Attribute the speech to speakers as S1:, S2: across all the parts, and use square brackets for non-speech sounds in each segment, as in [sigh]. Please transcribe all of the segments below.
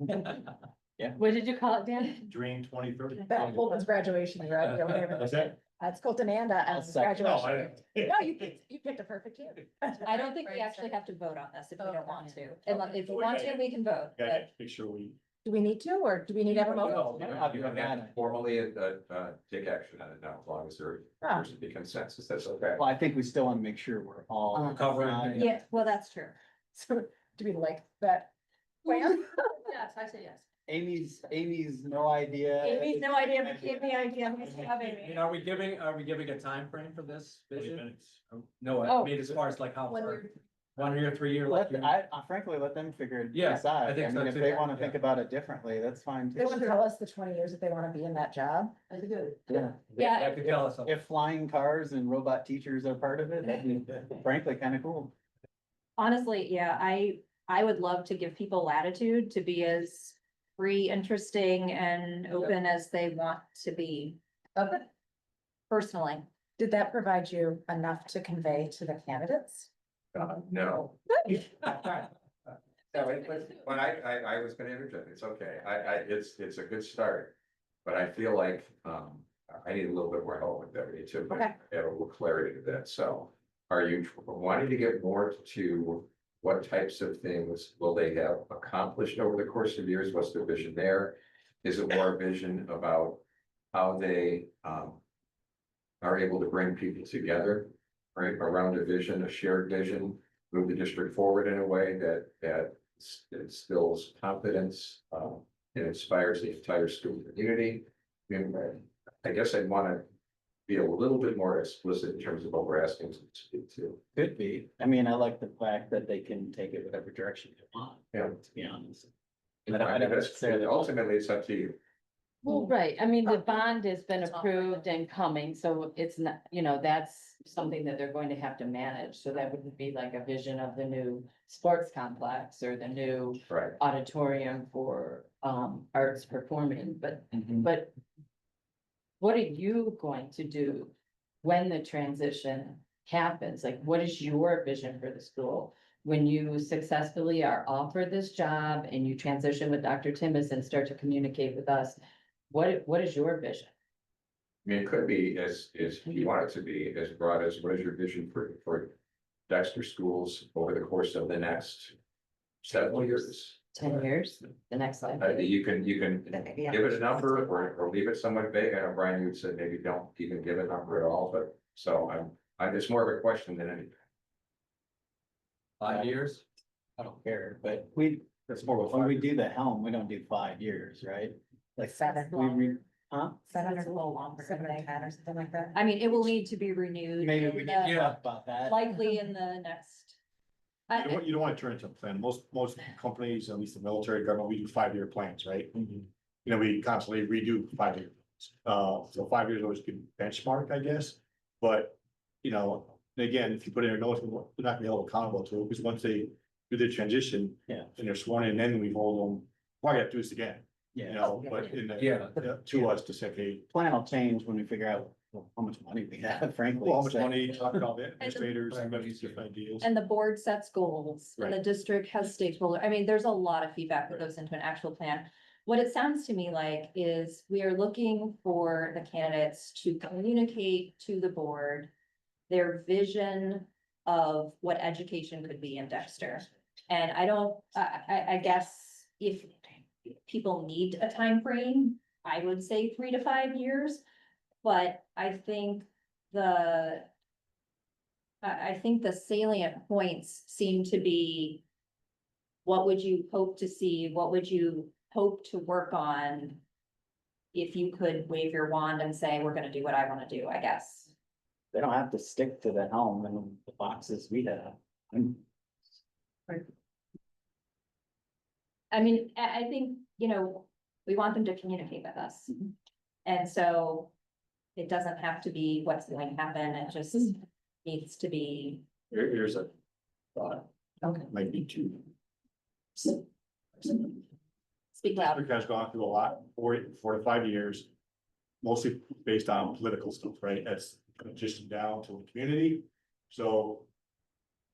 S1: What did you call
S2: [laughs]
S1: it, Dan?
S3: Dream twenty thirty.
S2: That Colton's graduation, right? Yeah, whatever.
S3: Is that?
S2: That's Colton and uh, Adam's
S4: second.
S3: No,
S2: graduation.
S3: I-
S2: No, you picked, you picked a perfect year.
S1: I don't think we actually have to vote on this if we
S5: Vote
S1: don't
S5: on
S1: want to.
S5: it.
S1: Unless, if we want to, we can vote,
S3: Gotta
S1: but
S3: make sure we.
S2: Do we need to, or do we need to have a motion?
S4: No,
S3: You
S4: no,
S3: don't-
S4: you
S3: you
S4: don't
S3: don't
S4: have
S3: have
S4: to.
S6: formally, uh, uh, take action on it now, as long as there
S2: Oh.
S6: appears to be consensus, that's okay.
S4: Well, I think we still want to make sure we're all.
S1: Uh,
S6: covering.
S4: aligned.
S1: yeah, well, that's true.
S2: [laughs] So do we like that?
S7: [laughs]
S2: plan?
S5: Yes, I say yes.
S4: Amy's, Amy's no idea.
S2: Amy's no idea, but give me idea.
S8: And are we giving, are we giving a time frame for this
S3: Twenty
S8: vision? Um,
S3: minutes.
S8: No,
S2: Oh.
S8: I mean, as far as like how
S5: When
S8: far,
S5: you're,
S8: one year, three year, like,
S4: Let,
S8: you-
S4: I, I frankly, let them figure it
S8: Yeah,
S4: decide.
S8: I think
S4: I
S8: so
S4: mean, if
S8: too.
S4: they want to
S8: Yeah.
S4: think about it differently, that's fine
S2: They
S4: too.
S2: want to tell us the twenty years that they want to be in that job.
S5: I think it-
S4: Yeah.
S1: Yeah.
S8: that could tell us. something.
S4: If flying cars and robot teachers are part of it, that'd be frankly kind of cool.
S1: Honestly, yeah, I, I would love to give people latitude to be as free, interesting and open as they want to be
S5: Okay.
S1: personally.
S2: Did that provide you enough to convey to the candidates?
S6: Uh, No, [laughs] no, it was, but I, I, I was gonna interject, it's okay, I, I, it's, it's a good start. But I feel like, um, I need a little bit more help with that, we need to
S2: Okay.
S6: add a little clarity to that, so. Are you wanting to get more to what types of things will they have accomplished over the course of years, what's the vision there? Is it more a vision about how they, um. Are able to bring people together, right, around a vision, a shared vision, move the district forward in a way that, that s- instills confidence, um, and inspires the entire student community. And I guess I'd want to be a little bit more explicit in terms of what we're asking them to do too.
S4: Could be. I mean, I like the fact that they can take it whatever direction they want.
S6: Yeah.
S4: To be honest. I don't- I
S6: I mean,
S4: don't
S6: that's-
S4: necessarily-
S6: Ultimately, it's up to you.
S7: Well, right, I mean, the
S5: Okay.
S7: bond has been
S5: It's not right
S7: approved and coming, so it's not, you know, that's something that they're going to have to manage. So that wouldn't be like a vision of the new sports complex or the new
S6: Right.
S7: auditorium for um arts performing, but, but. What are you going to do when the transition happens? Like, what is your vision for the school? When you successfully are offered this job and you transition with Dr. Timmons and start to communicate with us, what, what is your vision?
S6: I mean, it could be as, as if you want it to be as broad as what is your vision for, for Dexter schools over the course of the next several years?
S7: Ten years, the next slide.
S6: Uh, you can, you can give it a number or, or leave it somewhat vague. I know Brian, you said maybe don't even give a number at all, but so I'm, I'm, it's more of a question than anything.
S8: Five years?
S4: I don't care, but we,
S6: It's more of a.
S4: when we do the helm, we don't do five years, right? Like
S2: Seven.
S4: We, re- huh?
S2: Seven
S1: It's a
S2: or
S1: little longer.
S2: seven or ten or something like that?
S1: I mean, it will need to be renewed.
S4: Maybe we
S1: in
S4: can
S1: the-
S8: Yeah.
S4: talk about that.
S1: Likely in the next.
S3: You don't,
S1: I,
S3: want- you don't want to turn it into a plan. Most, most companies, at least the military government, we do five-year plans, right?
S4: Mm-hmm.
S3: You know, we constantly redo five-year. plans. Uh, so five years always good benchmark, I guess. But, you know, and again, if you put in a notice, they're not gonna be held accountable to it because once they do the transition.
S4: Yeah.
S3: And they're sworn in, then we hold them, probably have to do this again, you
S4: Yeah,
S3: know, but in the,
S8: Yeah.
S3: uh, to us to say, hey,
S4: plan will change when we figure out how much money we have, frankly.
S3: well, how much
S4: so-
S3: money, talk about the administrators, everybody's different ideas.
S1: and the board sets goals and the district has stakeholder, I mean, there's a lot of feedback that
S3: Right.
S1: goes into an actual plan. What it sounds to me like is we are looking for the candidates to communicate to the board their vision of what education could be in Dexter. And I don't, I, I, I guess if people need a time frame, I would say three to five years. But I think the I, I think the salient points seem to be what would you hope to see? What would you hope to work on? If you could wave your wand and say, we're gonna do what I wanna do, I guess.
S4: They don't have to stick to the helm and the boxes we have. And
S1: I mean, I, I think, you know, we want them to communicate with us. And so it doesn't have to be what's going to happen, it just needs to be,
S3: Here- here's a thought.
S1: Okay.
S3: Might be two.
S1: speak loud.
S3: Africa has gone through a lot, four, four to five years. Mostly based on political stuff, right? That's just down to the community. So.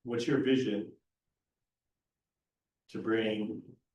S3: What's your vision? To bring